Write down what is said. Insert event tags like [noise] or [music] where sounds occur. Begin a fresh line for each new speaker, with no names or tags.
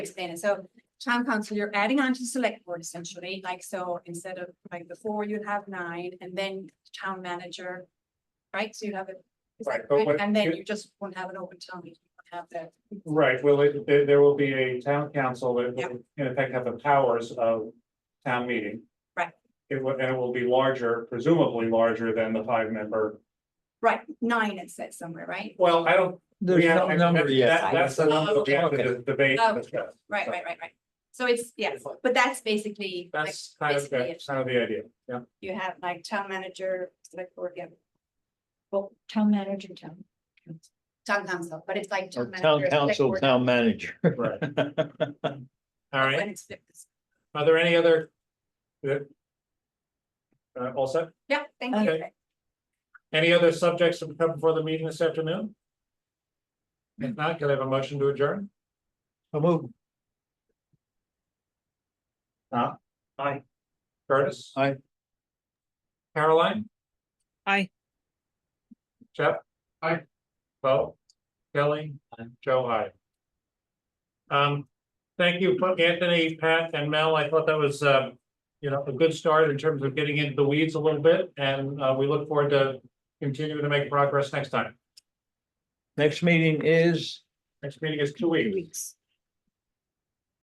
explain it. So town council, you're adding on to select board essentially, like so instead of like the four, you'd have nine and then town manager. Right? So you have it. is that
Right, but what-
And then you just won't have an open town meeting. you won't Have
Right, well, it- there, there will be a town council that
Yeah.
will, in effect, have the powers of town meeting.
Right.
It will, and it will be larger, presumably larger than the five member,
the, right, nine it says somewhere, right?
well, I don't.
There's
we
no
haven't-
number
that-
yet.
that- That's the number that we have to debate. and
Oh, Okay. Oh.
discuss.
Right, right, right, right. So it's, yeah, but that's basically. like,
That's kind of,
basically it.
that's kind of the idea, yeah.
You have like town manager, select board, yeah,
Well, town manager, town.
town council, but it's like.
Or
manager,
Town
select
council,
board,
town manager. [laughs]
Right. All
When
right,
it's fixed.
are there any other? Good. Uh, all set?
Yeah, thank you.
Okay. Any other subjects to come before the meeting this afternoon? If not, can I have a motion to adjourn?
So moved.
Huh? Aye. Curtis?
Aye.
Caroline?
Aye.
Jeff? Aye. Bo? Kelly? Joe, aye. Um, thank you, Anthony, Pat, and Mel. I thought that was, um, you know, a good start in terms of getting into the weeds a little bit, and, uh, we look forward to continuing to make progress next time.
Next meeting is
Next meeting is two
Two
weeks.
weeks.